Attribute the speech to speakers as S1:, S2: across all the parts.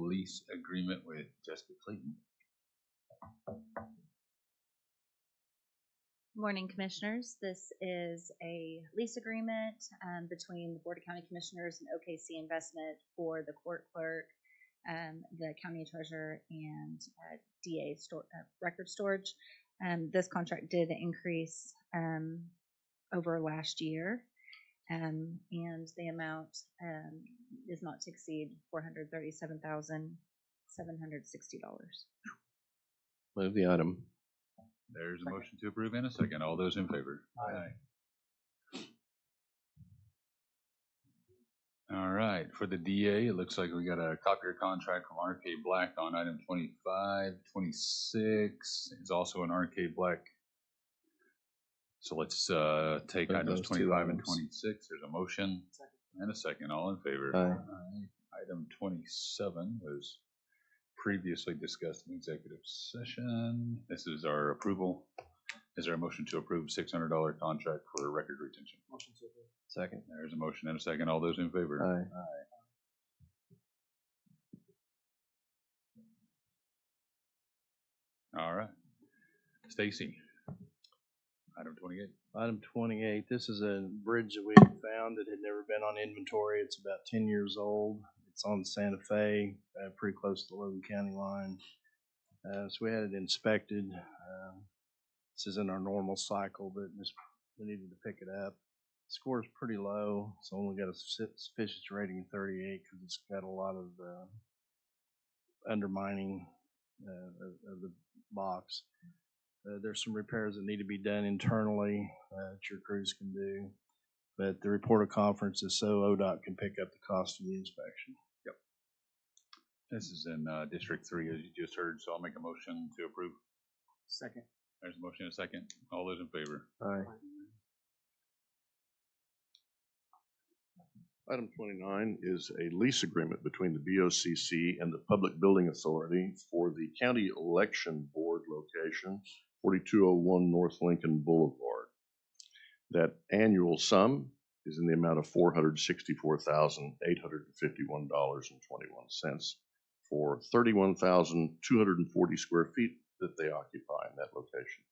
S1: lease agreement with Jessica Clayton.
S2: Morning, Commissioners. This is a lease agreement um, between the Board of County Commissioners and OKC Investment for the court clerk, um, the county treasurer, and uh, DA stor- uh, record storage. Um, This contract did increase um, over last year, um, and the amount um, is not to exceed $437,760.
S3: Move the item.
S1: There's a motion to approve and a second. All those in favor? Aye. All right, for the DA, it looks like we got a copier contract from RK Black on item 25, 26. It's also an RK Black. So let's uh, take
S3: Move
S1: items
S3: those two
S1: 25 and
S3: items.
S1: 26. There's a motion and a second. All in favor?
S3: Aye.
S1: Aye. Item 27 was previously discussed in executive session. This is our approval. Is there a motion to approve six hundred dollar contract for record retention?
S3: Second.
S1: There's a motion and a second. All those in favor?
S3: Aye.
S1: All right. Stacy. Item twenty-eight.
S3: Item twenty-eight, this is a bridge that we found that had never been on inventory. It's about ten years old. It's on Santa Fe, uh, pretty close to the Logan County line. Uh, so we had it inspected. Um, This isn't our normal cycle, but this, we needed to pick it up. Score is pretty low, It's only got a su- sufficiency rating of thirty-eight because it's got a lot of, uh, undermining, uh, of, of the box. Uh, there's some repairs that need to be done internally uh, that your crews can do. But the report of conference is so ODOT can pick up the cost of the inspection.
S1: This is in uh, District Three, as you just heard, so I'll make a motion to approve.
S4: Second.
S1: There's a motion and a second. All those in favor?
S3: Aye.
S5: Item twenty-nine is a lease agreement between the BOCC and the Public Building Authority for the County Election Board location, forty-two oh one North Lincoln Boulevard. That annual sum is in the amount of four hundred sixty-four thousand, eight hundred and fifty-one dollars and twenty-one cents for thirty-one thousand, two hundred and forty square feet that they occupy in that location.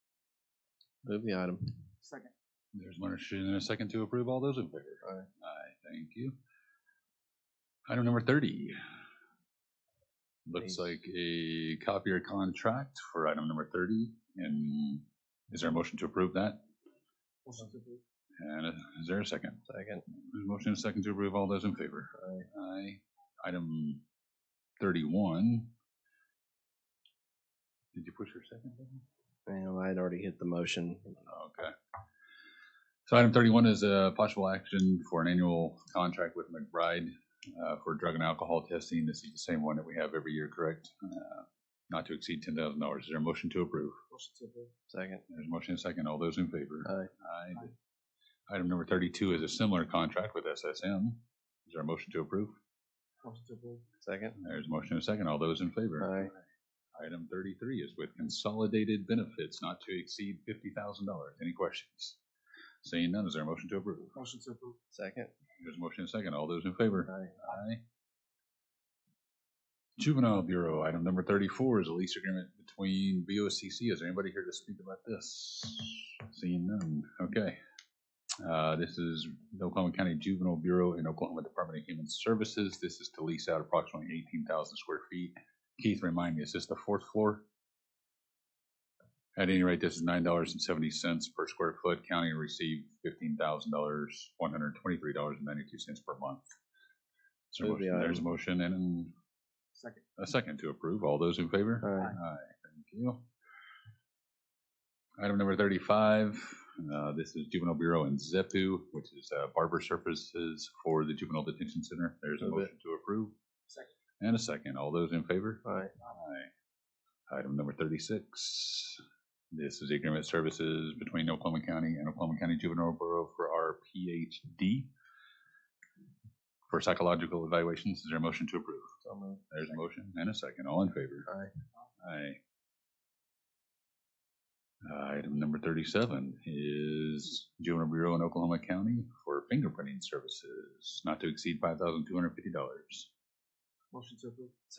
S3: Move the item.
S4: Second.
S1: There's a motion and a second to approve. All those in favor? Aye. Aye, thank you. Item number thirty. Looks
S3: Please.
S1: like a copier contract for item number thirty, and is there a motion to approve that? And is there a second?
S3: Second.
S1: There's a Motion and a second to approve. All those in favor?
S3: Aye.
S1: Aye. Item thirty-one. Did you push your second button?
S3: Damn, I had already hit the motion.
S1: Okay. So item thirty-one is a possible action for an annual contract with McBride uh, for drug and alcohol testing. This is the same one that we have every year, correct? Uh, Not to exceed ten thousand dollars. Is there a motion to approve?
S4: Motion to approve.
S3: Second.
S1: There's a motion and a second. All those in favor?
S3: Aye.
S1: Aye. Item number thirty-two is a similar contract with SSM. Is there a motion to approve?
S4: Motion to approve.
S3: Second.
S1: There's a motion and a second. All those in favor?
S3: Aye.
S1: Item thirty-three is with consolidated benefits not to exceed fifty thousand dollars. Any questions? Seeing none, is there a motion to approve?
S4: Motion to approve.
S3: Second.
S1: There's a motion and a second. All those in favor?
S3: Aye.
S1: Aye. Juvenile Bureau, item number thirty-four is a lease agreement between BOCC. Is there anybody here to speak about this? Seeing none. Okay. Uh, this is the Oklahoma County Juvenile Bureau and Oklahoma Department of Human Services. This is to lease out approximately eighteen thousand square feet. Keith, remind me, is this the fourth floor? At any rate, this is nine dollars and seventy cents per square foot. County received fifteen thousand dollars, one hundred twenty-three dollars and ninety-two cents per month. Is there a
S3: Move the
S1: motion? There's a
S3: item.
S1: motion and
S4: Second.
S1: a second to approve. All those in favor?
S3: Aye.
S1: Thank you. Item number thirty-five, uh, this is Juvenile Bureau and ZEPU, which is uh, barber services for the Juvenile Detention Center. There's a
S3: Move it.
S1: motion to approve.
S4: Second.
S1: And a second. All those in favor?
S3: Aye.
S1: Aye. Item number thirty-six, this is agreement services between Oklahoma County and Oklahoma County Juvenile Bureau for our PhD for psychological evaluations. Is there a motion to approve?
S3: So moved.
S1: There's a motion and a second. All in favor? Aye. Aye. Item number thirty-seven is Juvenile Bureau in Oklahoma County for fingerprinting services, not to exceed five thousand two hundred fifty dollars.
S4: Motion to approve.